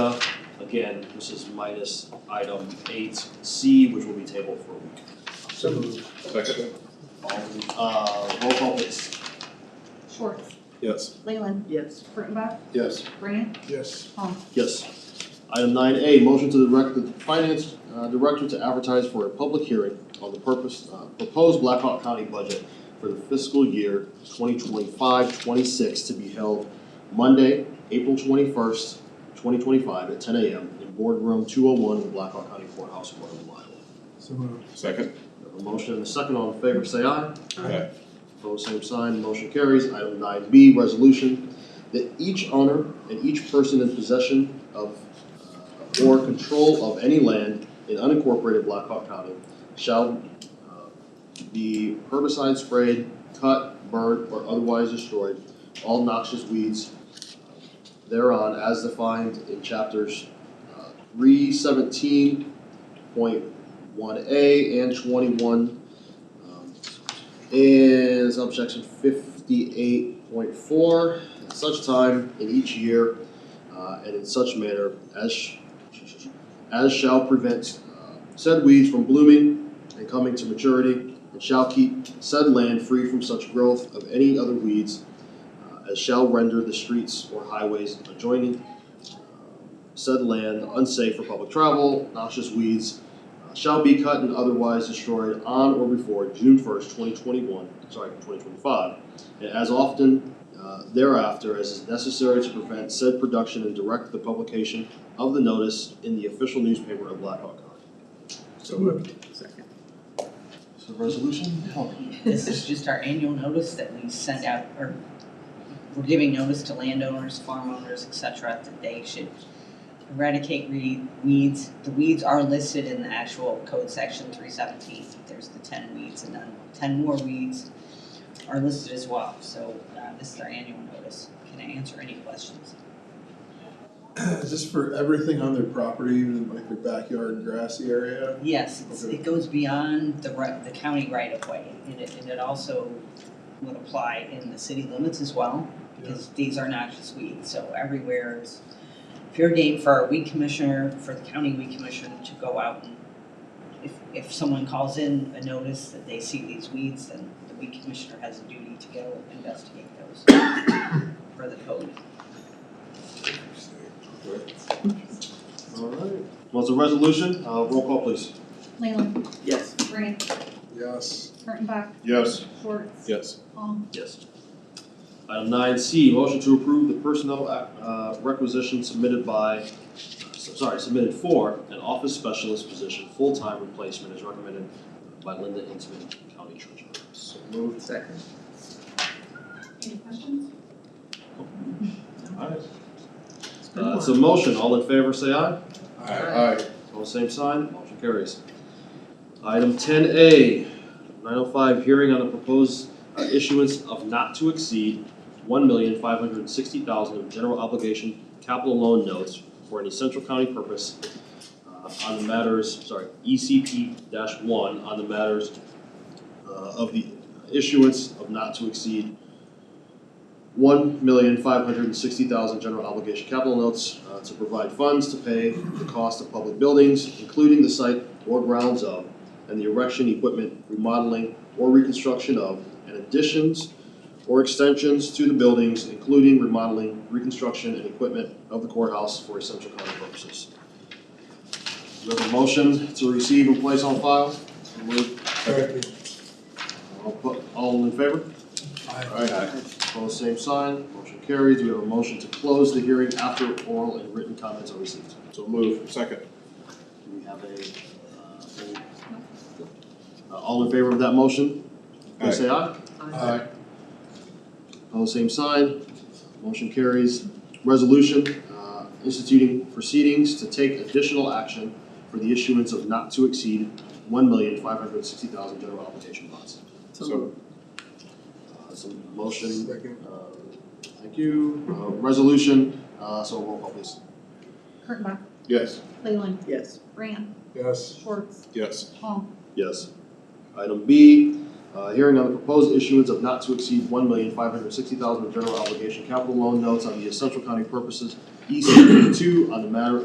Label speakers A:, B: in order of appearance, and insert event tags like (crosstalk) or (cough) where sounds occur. A: again, this is minus item eight C, which will be tabled for a week.
B: So moved.
C: Second.
A: All, uh, roll call please.
D: Schwartz,
C: Yes.
D: Leyland,
E: Yes.
D: Kurttenbach,
C: Yes.
D: Brant,
B: Yes.
D: Paul.
A: Yes. Item nine A, motion to direct the finance uh, director to advertise for a public hearing on the purpose, uh, proposed Blackhawk County budget for the fiscal year 2025-26 to be held Monday, April twenty-first, twenty twenty-five at ten AM in boardroom two oh one in the Blackhawk County Courthouse, Waterloo, Iowa.
B: So moved.
C: Second.
A: We have a motion and a second, all in favor, say aye.
C: Aye.
A: Opposed, same sign, motion carries. Item nine B, resolution that each owner and each person in possession of uh, or control of any land in unincorporated Blackhawk County shall uh, be herbicide sprayed, cut, burnt, or otherwise destroyed all noxious weeds uh, thereon as defined in chapters uh, three seventeen point one A and twenty-one um, in subsection fifty-eight point four, at such time in each year, uh, and in such manner as sh- as shall prevent uh, said weeds from blooming and coming to maturity, and shall keep said land free from such growth of any other weeds uh, as shall render the streets or highways adjoining uh, said land unsafe for public travel, noxious weeds, uh, shall be cut and otherwise destroyed on or before June first, twenty twenty-one, sorry, twenty twenty-five, and as often uh, thereafter as is necessary to prevent said production and direct the publication of the notice in the official newspaper of Blackhawk County.
B: So moved.
E: Second.
A: So resolution?
F: This is just our annual notice that we send out, or we're giving notice to landowners, farm owners, et cetera, that they should eradicate re- weeds. The weeds are listed in the actual code section three seventeen. There's the ten weeds and then ten more weeds are listed as well. So uh, this is our annual notice. Can I answer any questions?
B: Uh, Is this for everything on their property, even like their backyard and grassy area?
F: Yes, it's,
B: Okay.
F: it goes beyond the right, the county right of way, and it, and it also would apply in the city limits as well, because these are noxious weeds, so everywhere is fair game for our weed commissioner, for the county weed commissioner to go out and if, if someone calls in a notice that they see these weeds, then the weed commissioner has a duty to go investigate those (coughs) for the code.
A: Alright, well, it's a resolution, uh, roll call please.
D: Leyland,
E: Yes.
D: Brant,
B: Yes.
D: Kurttenbach,
C: Yes.
D: Schwartz,
C: Yes.
D: Paul.
A: Yes. Item nine C, motion to approve the personnel uh, requisition submitted by, uh, sorry, submitted for an office specialist position, full-time replacement as recommended by Linda Intiman, County Treasurer.
B: So moved.
E: Second.
D: Any questions?
A: Alright. Uh, it's a motion, all in favor, say aye.
C: Aye.
A: All same sign, motion carries. Item ten A, nine oh five, hearing on the proposed uh, issuance of not to exceed one million five hundred and sixty thousand of general obligation capital loan notes for an essential county purpose uh, on the matters, sorry, E ECP one, on the matters uh, of the issuance of not to exceed one million five hundred and sixty thousand general obligation capital notes uh, to provide funds to pay the cost of public buildings, including the site or grounds of, and the erection, equipment, remodeling, or reconstruction of, and additions or extensions to the buildings, including remodeling, reconstruction, and equipment of the courthouse for essential county purposes. Do we have a motion to receive and place on file? So moved.
B: Second.
A: All pu- All in favor?
C: Aye.
A: Opposed, same sign, motion carries, Do we have a motion to close the hearing after oral and written comments are received.
C: So move. Second.
A: Do we have a, uh, any- Uh, all in favor of that motion, please say aye.
B: Aye.
A: Opposed, same sign, motion carries. Resolution, uh, instituting proceedings to take additional action for the issuance of not to exceed one million five hundred sixty thousand general obligation bonds.
C: So.
A: Uh, so motion,
B: Second.
A: uh, thank you, uh, resolution, uh, so roll call please.
D: Kurttenbach,
C: Yes.
D: Leyland,
E: Yes.
D: Brant,
B: Yes.
D: Schwartz,
C: Yes.
D: Paul.
A: Yes. Item B, uh, hearing on the proposed issuance of not to exceed one million five hundred sixty thousand of general obligation capital loan notes on the essential county purposes, ECP E two, on the matter